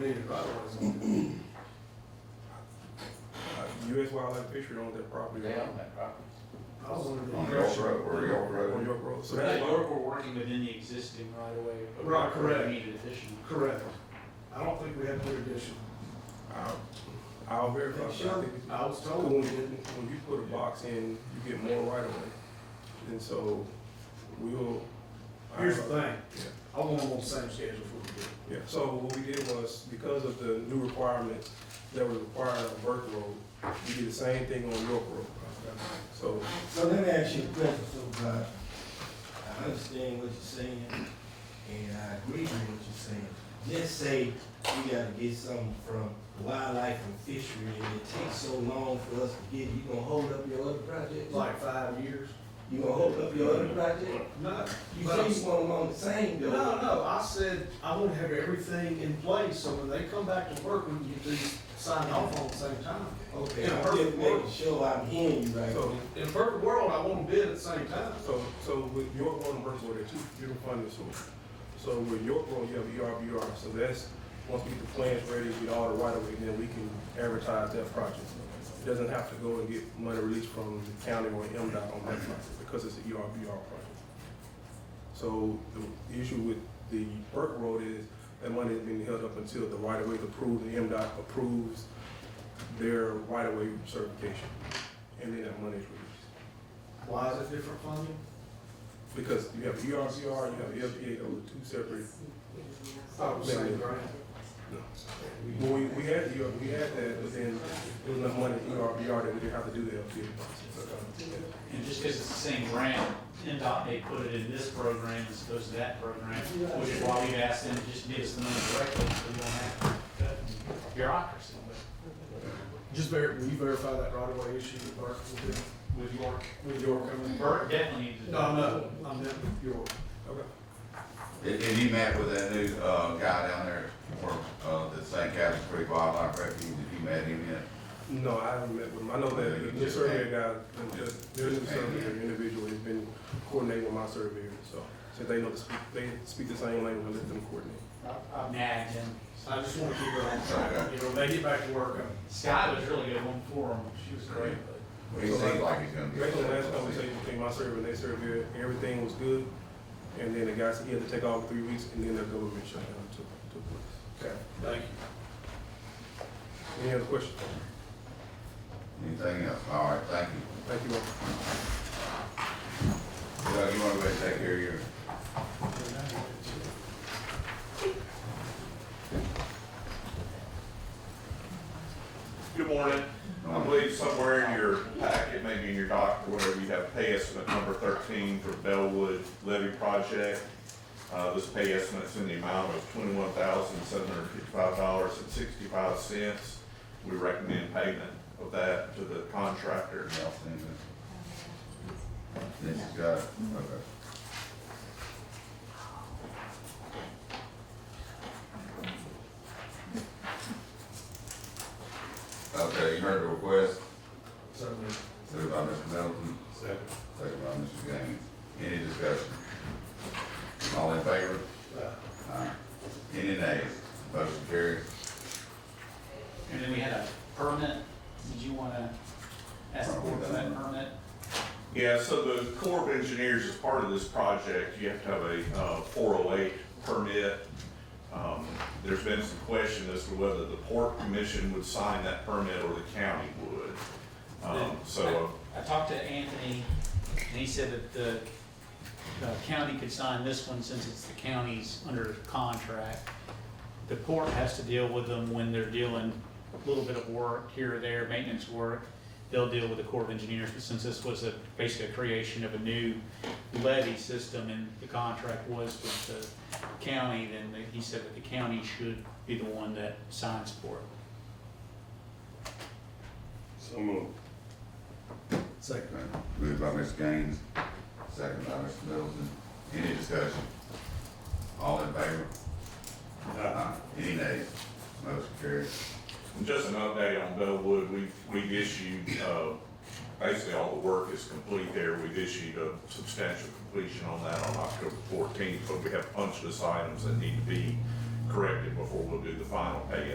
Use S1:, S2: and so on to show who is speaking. S1: Needed right of ways.
S2: U.S. Uh, Wildlife Fishery owns that property.
S3: They own that property.
S1: I was under the
S4: On York
S1: impression.
S4: Road, or York
S2: On
S4: Road.
S2: York Road. So
S3: They
S2: that's why,
S3: were, were working within the existing right of way. but
S1: Right, correct.
S3: we Needed additional.
S1: Correct. I don't think we had clear addition.
S2: I'll, I'll verify. but I
S1: Sure,
S2: think it's-
S1: I was
S2: When
S1: told
S2: you,
S1: we didn't.
S2: when you put a box in, you get more right of way. And so we'll.
S1: Here's the thing,
S2: Yeah.
S1: I want them on the same schedule for the
S2: Yeah, so what we did was, because of the new requirements that were required on Burke Road, we did the same thing on York Road. So,
S5: So let me ask you a question, Supervisor. I understand what you're saying, and I agree with what you're saying. Just say we gotta get something from wildlife and fishery, and it takes so long for us to get, it. you gonna hold up your other project?
S1: like five years.
S5: You gonna hold up your other project?
S1: No,
S5: You
S1: But I'm-
S5: say you want them on the same
S1: no,
S5: though.
S1: no, I said I want to have everything in place, so when they come back to work, we can get these signed off on at the same time.
S5: Okay,
S1: In a
S5: I'm
S1: perfect
S5: just making
S1: world,
S5: sure I'm hearing you right.
S2: so,
S1: in a perfect world, I want to bid at the same time.
S2: so, so with York Road and Burke Road, they're two different funding sources. So with York Road, you have E ERBR, so that's, once we get the plans ready, get all the right of way, then we can advertise that project. It Doesn't have to go and get money released from the county or MDOT on that project, because it's E an ERBR project. So the issue with the Burke Road is that money is being held up until the right of way is approved, the MDOT approves their right of way certification. And then that money is released.
S1: Why is it different funding?
S2: Because you have E ERCR, you have LPA, those are two separate.
S1: Thought it was same grant.
S2: Well, we, we had, E the- we had that, but then there was enough money in E ERBR that we didn't have to do the LPA process.
S3: And just because it's the same grant, NDOT may put it in this program as opposed to that program, which is why we've asked them to just give us the money directly, so we don't have to cut bureaucracy. But
S1: Just ver, will you verify that right away issue with Burke, with the-
S3: With York,
S1: with York coming?
S3: Bert definitely needs to.
S1: No, no, I meant with York.
S2: Okay.
S4: If, if you met with that new, uh, guy down there from, uh, the St. Catharines Creek Wildlife Refuge, if you met him yet?
S2: No, I haven't met with him. I know that the new surveyor guy, their new surveyor individual has been coordinating with my surveyor, so. So they know, the speak- they speak the same language, I let them coordinate.
S3: I've- I've nagged him.
S1: I just want to keep it on
S4: uh,
S1: track, you know, when they get back to work, I'm-
S3: Sky was really good one for him. She was great, but.
S4: He seems like he's gonna be.
S2: Based on the last conversation between my surveyor and their surveyor, everything was good. And then the guy said he had to take off for three weeks and then their government shutdown took, took place.
S1: okay, thank you.
S2: Any other questions?
S4: Anything else? All right, thank you.
S2: Thank you all.
S4: Doug, you wanna go ahead and take care of your?
S6: Good morning. I believe somewhere in your packet, maybe in your doc, or whatever, you have pay estimate number thirteen for Bellwood levy project. Uh, this pay estimate's in the amount of twenty-one thousand, seven hundred fifty-five dollars and sixty-five cents. We recommend payment of that to the contractor.
S4: Nelson, This is got, it. okay. Okay, you heard the request,
S1: Certainly.
S4: second by Mr. Middleton,
S1: Second.
S4: second by Mr. Gaines. Any discussion? All in favor?
S1: Uh,
S4: Aye. Any nays? Motion carries.
S3: And then we had a permit, did you wanna ask the board for that permit?
S6: Yeah, so the Corps of Engineers, as part of this project, you have to have a uh, 408 permit. Um, There's been some question as to whether the Port Commission would sign that permit or the county would. Um, So,
S3: I I talked to Anthony, and he said that the the county could sign this one since it's the county's under contract. The port has to deal with them when they're dealing a little bit of work here or there, maintenance work. They'll deal with the Corps of Engineers, but since this was a, basically a creation of a new levy system and the contract was with the county, then the- he said that the county should be the one that signs for it.
S1: Second.
S4: Moved by Ms. Gaines, second by Mr. Middleton. Any discussion? All in favor? Aye. Any nays? Motion carries.
S6: and uh, just an update on Bellwood, we've, we've issued, uh, basically all the work is complete there. We've issued a substantial completion on that on October 14th, but we have punch list items that need to be corrected before we'll do the final pay